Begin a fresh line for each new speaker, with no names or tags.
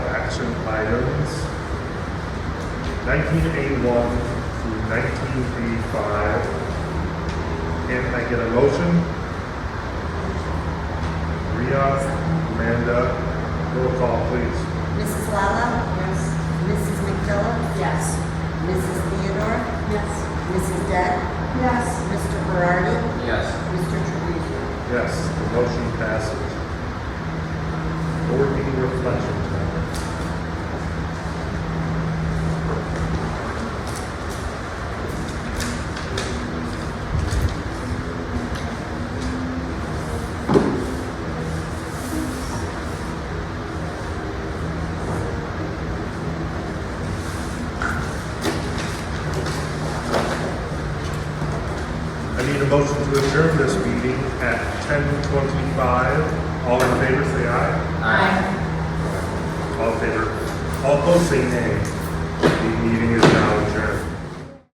1981 through 1985. Can I get a motion? Ria, Amanda, roll call, please.
Mrs. Lala? Yes. Mrs. McKillop?
Yes.
Mrs. Theodore?
Yes.
Mrs. Depp?
Yes.
Mr. Berardi?
Yes.
Mr. Trevisan?
Yes, the motion passes. Board meeting reflections. I need a motion to adjourn this meeting at ten twenty-five. All in favor, say aye.
Aye.
All in favor. All opposed, say nay.